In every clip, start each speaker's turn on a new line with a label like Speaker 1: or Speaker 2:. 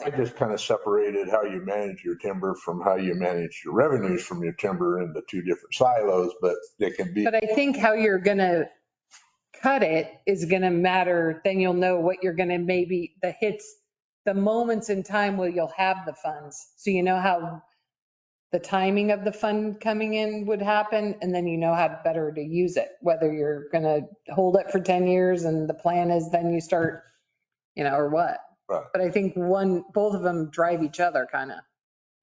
Speaker 1: I just kind of separated how you manage your timber from how you manage your revenues from your timber into two different silos, but they can be,
Speaker 2: But I think how you're gonna cut it is gonna matter, then you'll know what you're gonna maybe, the hits, the moments in time where you'll have the funds. So you know how the timing of the fund coming in would happen, and then you know how better to use it, whether you're gonna hold it for 10 years and the plan is then you start, you know, or what.
Speaker 1: Right.
Speaker 2: But I think one, both of them drive each other kind of,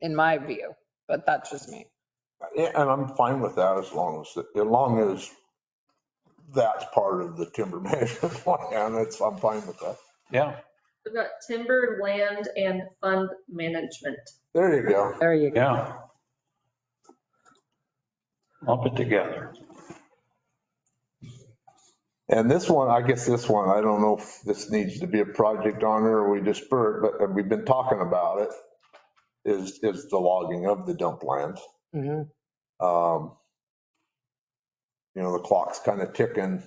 Speaker 2: in my view, but that's just me.
Speaker 1: and I'm fine with that as long as, as long as that's part of the timber management plan, that's, I'm fine with that.
Speaker 3: Yeah,
Speaker 4: We've got timber, land, and fund management.
Speaker 1: There you go.
Speaker 2: There you go.
Speaker 3: yeah. Lump it together.
Speaker 1: And this one, I guess this one, I don't know if this needs to be a project on it or we just spur it, but we've been talking about it, is, is the logging of the dump lands.
Speaker 2: Mhm.
Speaker 1: Um You know, the clock's kind of ticking,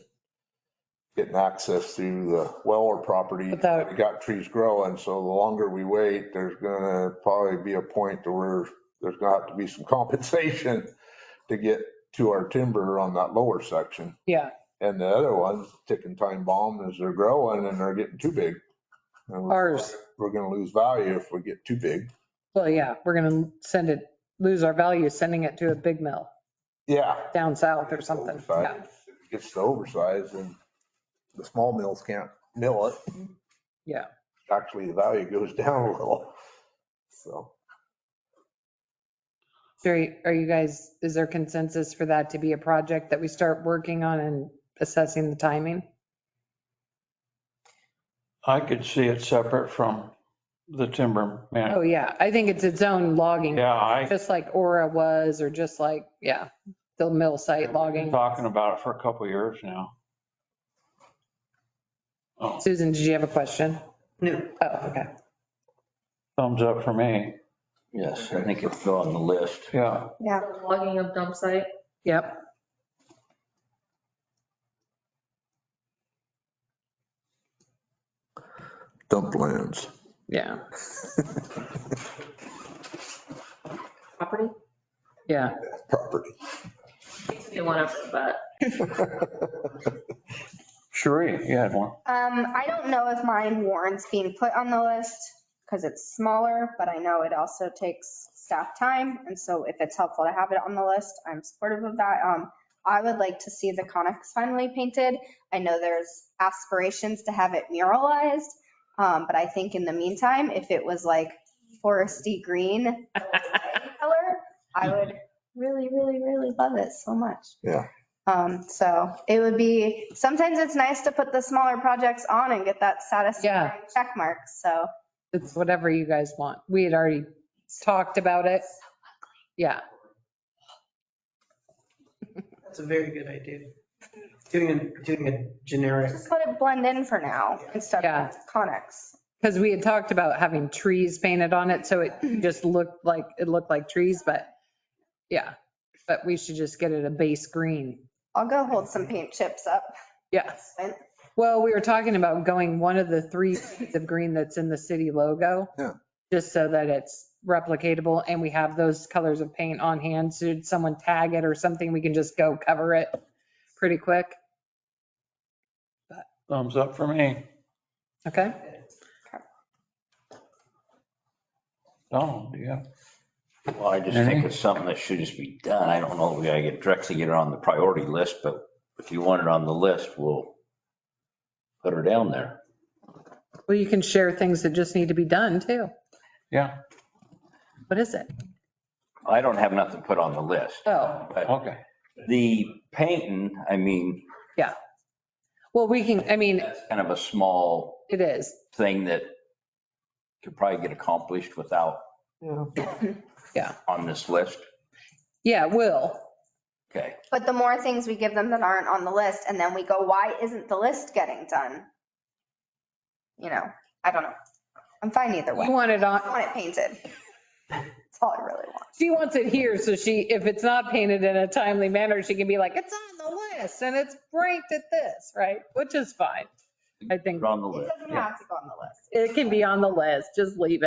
Speaker 1: getting access to the Weller property.
Speaker 2: Without-
Speaker 1: We got trees growing, so the longer we wait, there's gonna probably be a point to where there's gonna have to be some compensation to get to our timber on that lower section.
Speaker 2: Yeah.
Speaker 1: And the other one's ticking time bomb is they're growing and they're getting too big. And we're-
Speaker 2: Ours.
Speaker 1: We're gonna lose value if we get too big.
Speaker 2: Well, yeah, we're going to send it, lose our value sending it to a big mill
Speaker 1: Yeah,
Speaker 2: down south or something. Yeah.
Speaker 1: Oversized. It Gets the oversized and the small mills can't mill it.
Speaker 2: Yeah.
Speaker 1: Actually, the value goes down a little. So,
Speaker 2: Jerry, are you guys, is there consensus for that to be a project that we start working on and assessing the timing?
Speaker 3: I could see it separate from the timber man.
Speaker 2: Oh, yeah, I think it's its own logging,
Speaker 3: Yeah, I
Speaker 2: just like Aura was, or just like, yeah, the mill site
Speaker 3: been
Speaker 2: logging.
Speaker 3: talking about it for a couple of years now. Oh,
Speaker 2: Susan, did you have a question? No. Oh, okay.
Speaker 3: thumbs up for me.
Speaker 5: Yes, I think it's on the list.
Speaker 3: Yeah,
Speaker 6: Yeah,
Speaker 4: Logging of dump site.
Speaker 2: Yep.
Speaker 1: dump lands.
Speaker 2: Yeah,
Speaker 4: Property.
Speaker 2: yeah.
Speaker 1: Property.
Speaker 4: You want to, but
Speaker 3: Sheree, you had one.
Speaker 6: um, I don't know if mine warrants being put on the list because it's smaller, but I know it also takes staff time. And so if it's helpful to have it on the list, I'm supportive of that. Um, I would like to see the Conex finally painted. I know there's aspirations to have it muralized. Um, but I think in the meantime, if it was like foresty green color, I would really, really, really love it so much.
Speaker 1: Yeah.
Speaker 6: Um, so it would be, sometimes it's nice to put the smaller projects on and get that satisfying check mark. So
Speaker 2: It's whatever you guys want. We had already talked about it. Yeah,
Speaker 7: That's a very good idea. Doing a, doing a generic,
Speaker 6: just let it blend in for now instead
Speaker 2: Yeah.
Speaker 6: of Conex.
Speaker 2: because we had talked about having trees painted on it, so it just looked like, it looked like trees, but yeah. But we should just get it a base green.
Speaker 6: I'll go hold some paint chips up.
Speaker 2: Yeah. Well, we were talking about going one of the three shades of green that's in the city logo.
Speaker 1: Yeah.
Speaker 2: Just so that it's replicatable and we have those colors of paint on hand. So Should someone tag it or something, we can just go cover it pretty quick.
Speaker 3: Thumbs up for me.
Speaker 2: Okay?
Speaker 3: Donald, do you have?
Speaker 5: Well, I just think it's something that should just be done. I don't know if we gotta get directly get it on the priority list, but if you want it on the list, we'll put her down there.
Speaker 2: Well, you can share things that just need to be done too.
Speaker 3: Yeah,
Speaker 2: What is it?
Speaker 5: I don't have nothing put on the list.
Speaker 2: Oh,
Speaker 5: But
Speaker 3: okay.
Speaker 5: the painting, I mean,
Speaker 2: well, we can, I mean,
Speaker 5: that's kind of a small
Speaker 2: it is.
Speaker 5: thing that could probably get accomplished without
Speaker 2: Yeah.
Speaker 5: on this list.
Speaker 2: Yeah, it will.
Speaker 5: Okay.
Speaker 6: But the more things we give them that aren't on the list and then we go, why isn't the list getting done? You know, I don't know. I'm fine either way.
Speaker 2: You want it on,
Speaker 6: I want it painted. That's all I really want.
Speaker 2: she wants it here, so she, if it's not painted in a timely manner, she can be like, it's on the list and it's ranked at this, right? Which is fine. I think
Speaker 5: Put it on the
Speaker 6: It
Speaker 5: list.
Speaker 6: doesn't have to go on the list.
Speaker 2: it can be on the list, just leave it.